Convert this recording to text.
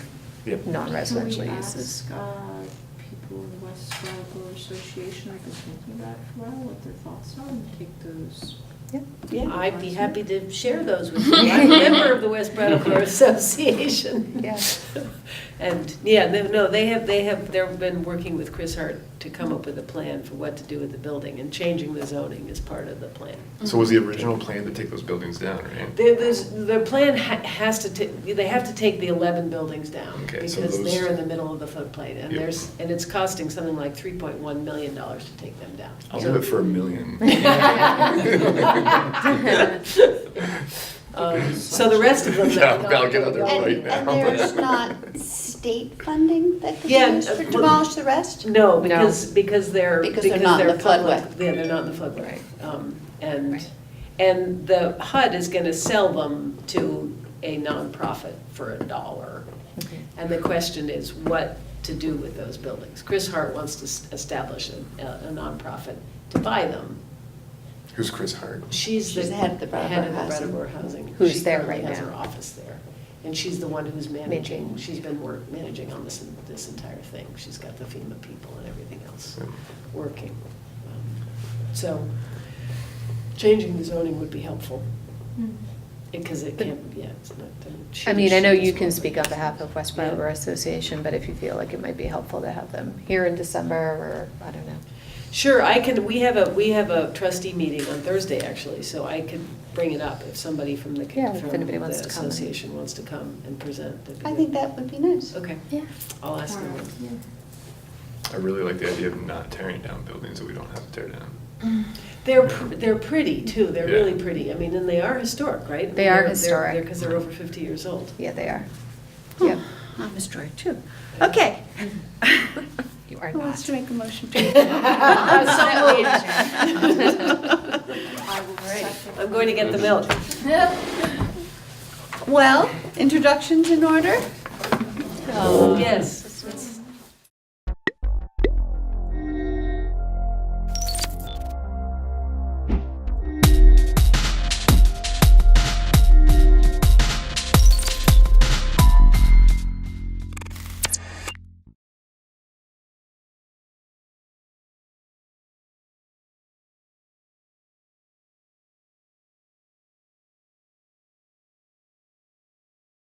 Yep. non-residential Can we uses. ask, uh, people in the West Scarborough Association, I've been thinking about it for a while, what their thoughts are, and take those. Yep. I'd be happy to share those with you. I'm a member of the West Brattleboro Association. Yeah. And, yeah, they- no, they have, they have, they've been working with Chris Hart to come up with a plan for what to do with the building, and changing the zoning is part of the plan. So was the original plan to take those buildings down, right? There- There's, the plan ha- has to, ta- they have to take the 11 buildings down, Okay, so because those- they're in the middle of the floodplain, and Yep. there's, and it's costing something like $3.1 million dollars to take them down. I'll So- do it for a million. Um, So the rest of them. Yeah, I'll get out there No, right And, and now. there's not state funding that could be Yeah, used to uh, demolish the rest? No, because, because they're. Because they're not in the public. floodway. Yeah, they're not in the floodway. Right. Um, And, Right. and the HUD is gonna sell them to a nonprofit for a dollar. And the question is what to do with those buildings. Chris Hart wants to s- establish a, a nonprofit to buy them. Who's Chris Hart? She's the. She's the head of the Brattleboro head of the Housing. Brattleboro Housing. Who's She there currently right has now. her office there. And she's the one who's managing, Managing. she's been work, managing on this, this entire thing. She's got the FEMA people and everything else Yeah. working. Um, So changing the zoning would be helpful, Hmm. because it But- can't, yeah, it's not. uh, I mean, I know she- you she's can not- speak on behalf of West Yeah. Brattleboro Association, but if you feel like it might be helpful to have them here in December, or, I don't know. Sure, I can, we have a, we have a trustee meeting on Thursday, actually, so I could bring it up if somebody from the, Yeah, from if the anybody wants to come. association wants to come and present. that'd be I good. think that would be nice. Okay, Yeah. I'll ask them. I really like the idea of not tearing down buildings that we don't have to tear down. They're, pr- they're pretty too, they're Yeah. really pretty, I mean, and they are historic, right? They are historic. Because they're over fifty years old. Yeah, they are. Yep. I'm a story Ah, too. Okay. You are Who wants not. to make a motion to? I will second. I'm going to get the milk. Well, introductions in order? Yes.